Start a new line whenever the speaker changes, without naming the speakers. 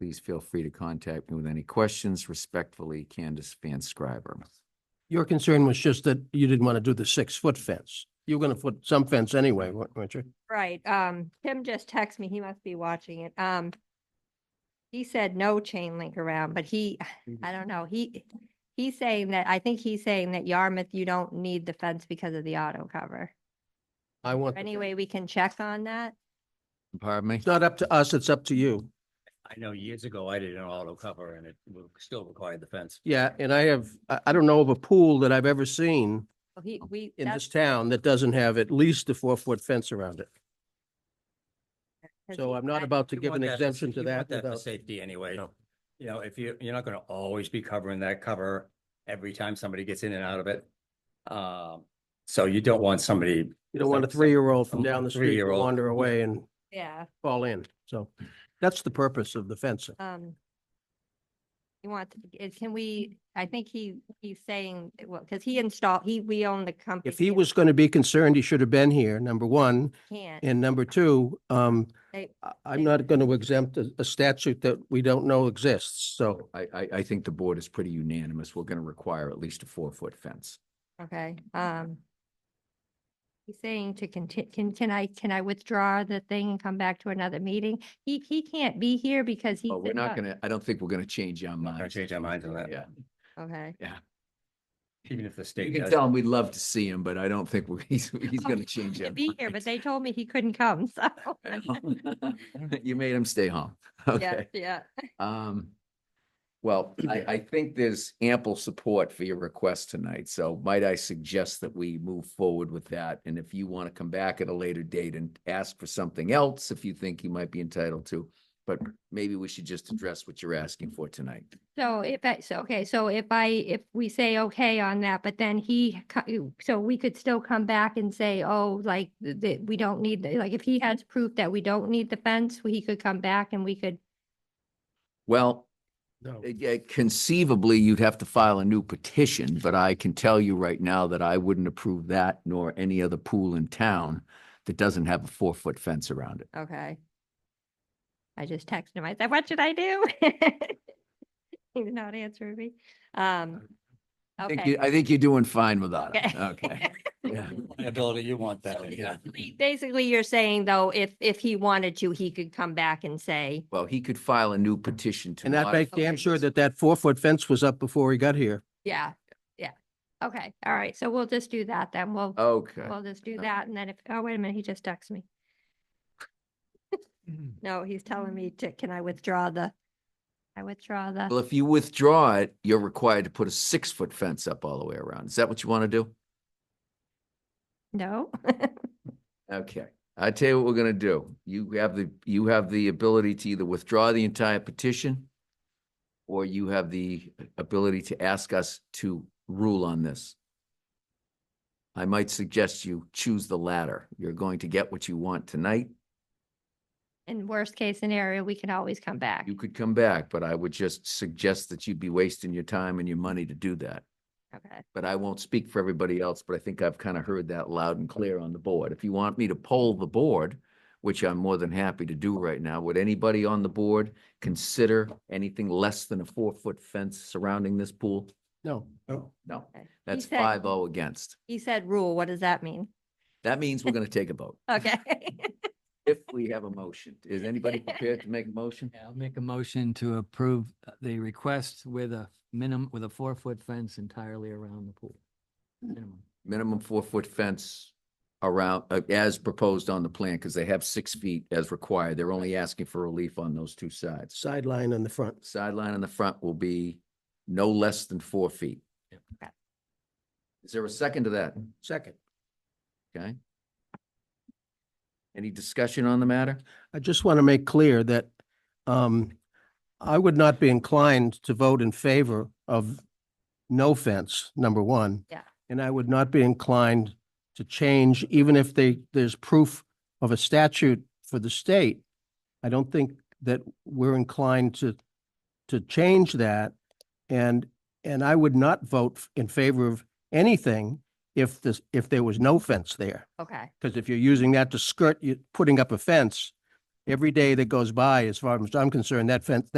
Please feel free to contact me with any questions. Respectfully, Candace Van Scriver.
Your concern was just that you didn't want to do the six-foot fence. You were going to put some fence anyway, wa- weren't you?
Right, um, Tim just texted me, he must be watching it, um. He said no chain link around, but he, I
Mm-hmm.
don't know, he, he's saying that, I think he's saying that Yarmouth, you don't need the fence because of the auto cover.
I want, the-
Anyway, we can check on that.
Pardon me?
it's not up to us, it's up to you.
I know years ago I did an auto cover and it w- still required the fence.
Yeah, and I have, I, I don't know of a pool that I've ever seen
Well, Oh, He, we,
in
that's
this town that doesn't have at least a four-foot fence around it.
'cause
So
he-
I'm not
I-
about to
You
give an
want that for-
exemption to
you want
that
for
without,
Safety anyway.
No.
You know, if you, you're not gonna always be covering that cover every time somebody gets in and out of it. Um, so you don't want somebody,
you don't want a three-year-old from down the street to
Three-year-old.
wander away and
Yeah,
fall in. So that's the purpose of the fencing.
um. You want, it- can we, I think he, he's saying, well, because he installed, he, we own the company.
If he was going to be concerned, he should have been here, number one.
Can't.
And number two, um,
They-
I- I'm
they-
not going to exempt a a statute that we don't know exists, so.
I, I, I think the board is pretty unanimous. We're going to require at least a four-foot fence.
Okay, um. He's saying to conti- can, can I, can I withdraw the thing and come back to another meeting? He, he can't be here because he.
Oh, we're
said
not
no.
gonna, I don't think we're gonna change our
not gonna
minds.
change our minds on that.
Yeah,
Okay,
even if the
you
state
can
does.
tell him we'd love to see him, but I don't think we're- he's, he's
Oh,
gonna
he
change
to
it.
be here, but they told me he couldn't come, so.
You made him stay home.
Yeah,
Okay.
yeah,
Um, well, I, I think there's ample support for your request tonight, so might I suggest that we move forward with that? And if you want to come back at a later date and ask for something else, if you think you might be entitled to, but maybe we should just address what you're asking for tonight.
so if I, so, okay, so if I, if we say okay on that, but then he, co- so we could still come back and say, oh, like, that, we don't need, the- like, if he has proof that we don't need the fence, he could come back and we could,
Well,
No.
Uh, yeah, Conceivably, you'd have to file a new petition, but I can tell you right now that I wouldn't approve that nor any other pool in town that doesn't have a four-foot fence around it.
Okay. I just texted him. I said, what should I do? He did not answer me. Um,
I think
okay.
you- I think you're doing fine without it.
Okay.
Okay. Yeah.
Liability, you want that,
So
in, yeah.
basically- Basically, you're saying though, if, if he wanted to, he could come back and say,
Well, he could file a new petition to.
And that
modify-
makes damn
Okay.
sure that that four-foot fence was up before he got here.
yeah, yeah. Okay, all right. So we'll just do that then. We'll,
Okay. Uh.
we'll just do
okay.
that. And then if, oh, wait a minute, he just texted me. No, he's telling me to, can I withdraw the, I withdraw the.
Well, if you withdraw it, you're required to put a six-foot fence up all the way around. Is that what you want to do?
No.
Okay, I tell you what we're gonna do. You have the, you have the ability to either withdraw the entire petition or you have the ability to ask us to rule on this. I might suggest you choose the latter. You're going to get what you want tonight.
In worst case scenario, we can always come back.
You could come back, but I would just suggest that you'd be wasting your time and your money to do that.
Okay.
But I won't speak for everybody else, but I think I've kind of heard that loud and clear on the board. If you want me to poll the board, which I'm more than happy to do right now, would anybody on the board consider anything less than a four-foot fence surrounding this pool?
No.
No,
Okay. He
that's
said-
five oh against.
He said rule. What does that mean?
That means we're going to take a vote.
Okay.
If we have a motion, is anybody prepared to make a motion?
Yeah, I'll make a motion to approve uh, the request with a minimum, with a four-foot fence entirely around the pool. Minimum.
Minimum four-foot fence around, uh, as proposed on the plan, because they have six feet as required. They're only asking for relief on those two sides.
Sideline on the front.
sideline in the front will be no less than four feet.
Yep.
Okay.
Is there a second to that?
Second.
Okay. Any discussion on the matter?
I just want to make clear that um, I would not be inclined to vote in favor of no fence, number one.
Yeah.
And I would not be inclined to change, even if they, there's proof of a statute for the state. I don't think that we're inclined to, to change that. And, and I would not vote in favor of anything if this, if there was no fence there.
Okay.
Because if you're using that to skirt, you putting up a fence, every day that goes by, as far as I'm concerned, that fence, that